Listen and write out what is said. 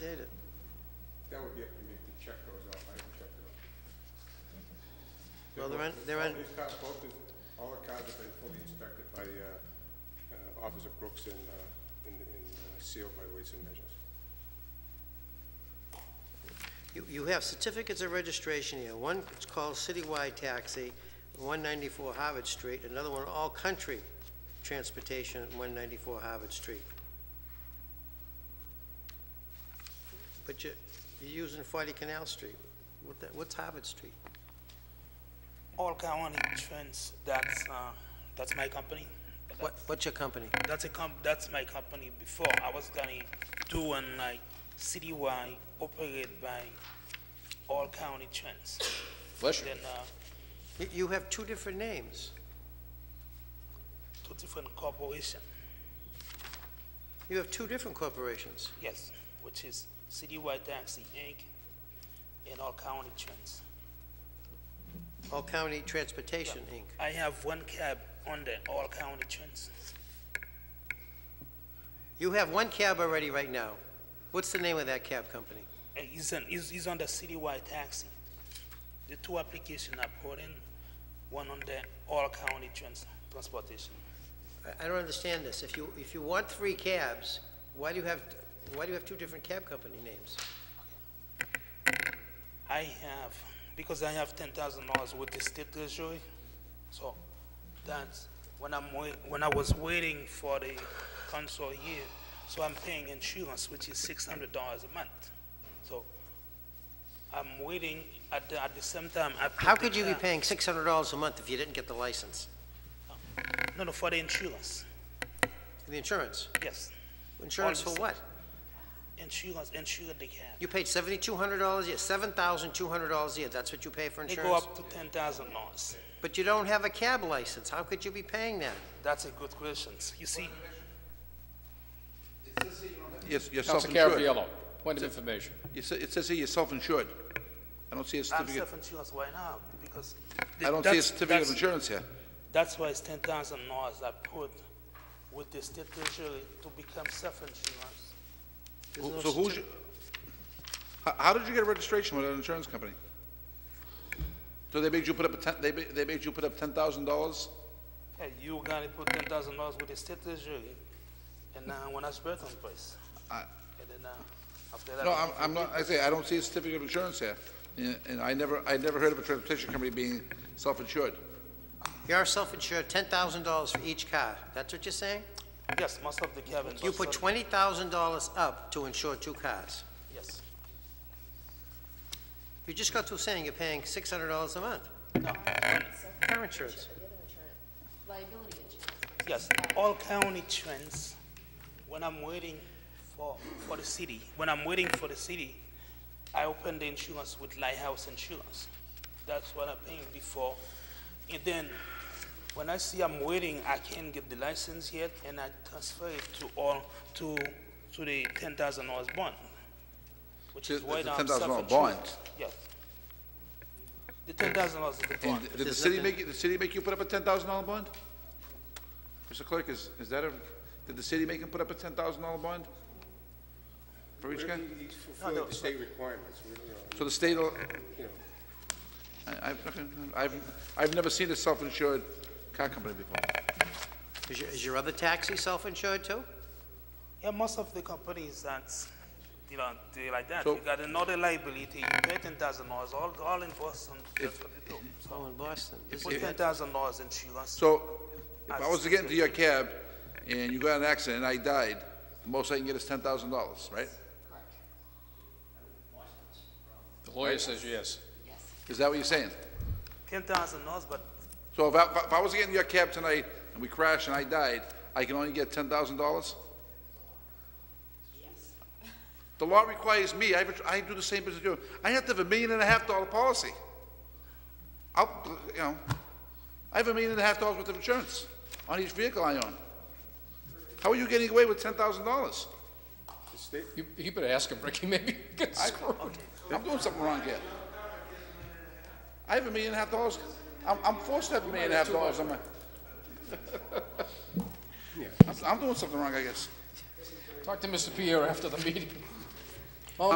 stated. That would be up to me if the check goes off, I haven't checked it off. Well, they're in, they're in, All these cars, both of, all the cars have been fully inspected by, uh, uh, Officer Brooks and, uh, and, and uh, sealed by weights and measures. you, you have certificates of registration here. One is called Citywide Taxi, 194 Harvard Street, another one All Country Transportation, 194 Harvard Street. But you, you're using 40 Canal Street. What the, what's Harvard Street? All County Trends, that's, uh, that's my company. What, what's your company? That's a comp, that's my company before. I was gonna do one like citywide, operated by All County Trends. Pleasure. Then, uh, You- You have two different names. two different corporation, You have two different corporations. yes, which is Citywide Taxi Inc. and All County Trends. All County Transportation, Inc. I have one cab under All County Trends. You have one cab already right now. What's the name of that cab company? Uh, He's on, he's, he's on the citywide taxi. The two application I put in, one on the all county trans, transportation. I- I don't understand this. If you, if you want three cabs, why do you have, why do you have two different cab company names? I have, because I have ten thousand dollars with the state treasury, so that's, when I'm wait, when I was waiting for the council here, so I'm paying insurance, which is six hundred dollars a month. So I'm waiting at the, at the same time I. put How the could you be car- paying six hundred dollars a month if you didn't get the license? No, no, for the insurance, The insurance? yes. Insurance for what? Insurance, insure the cab. You paid seventy-two hundred dollars a year, seven thousand two hundred dollars a year. That's what you pay for They go insurance? up to ten thousand dollars. But you don't have a cab license. How could you be paying that? That's a good question. You see, Yes, you're Council self-insured. Caraviallo, point of information. You sa- It says here you're self-insured. I don't see a I'm certificate, self-insurance right now because. I don't see a that's- certificate of that's- insurance here. That's why it's ten thousand dollars I put with the state treasury to become self-insurance. There's Who- no So who's, certi- your- how, how did you get a registration with an insurance company? So they made you put up a ten, they, ma- they made you put up ten thousand dollars? Hey, you gotta put ten thousand dollars with the state treasury and now when I birth on price. I- And then, uh, after that. No, I I'm, give you I'm not, I say, I don't see a certificate of insurance here. Yeah, And I never, I never heard of a transportation company being self-insured. You are self-insured, ten thousand dollars for each car. That's what you're saying? Yes, most of the cabin. You was put sold- twenty thousand dollars up to insure two cars. Yes. You just got through saying you're paying six hundred dollars a month. No, Car insurance. The other insurance, liability insurance. Yes, all county trends, when I'm waiting for, for the city, when I'm waiting for the city, I open the insurance with Lighthouse Insurance. That's what I'm paying before. And then, when I see I'm waiting, I can't get the license yet, and I transfer it to all, to, to the ten thousand dollars bond. Which To- is why the now I'm $10,000 self-insured. bond. Yes. The ten thousand dollars is the And bond. did the There's city nothing- make, you- the city make you put up a ten thousand dollar bond? Mr. Clerk, is, is that a, did the city make him put up a ten thousand dollar bond? For each guy? He- He's fulfilling the state requirements, we, you know, So the state, will- you know, I, I've, okay, I've, I've never seen a self-insured car company before. Is your, is your other taxi self-insured too? Yeah, most of the companies that, you know, they like that. So- you got another liability, you pay ten thousand dollars, all, all in Boston, that's what they do. Oh, in Boston. This Put is- ten thousand dollars insurance. So, if I was to get into your cab and you got in an accident and I died, the most I can get is ten thousand dollars, right? The lawyer says yes. Is that what you're saying? Ten thousand dollars, but So if I, if I was to get into your cab tonight and we crashed and I died, I can only get ten thousand dollars? The law requires me, I, have a- I do the same business you do. I have to have a million and a half dollar policy. I'll, you know, I have a million and a half dollars worth of insurance on each vehicle I own. How are you getting away with ten thousand dollars? the state, You, you better ask him, Ricky, maybe you get screwed. I'm doing something wrong here. I have a million and a half dollars, I'm, I'm forced to have a million and a half dollars on my. I'm, I'm doing something wrong, I guess. Talk to Mr. Pierre after the meeting.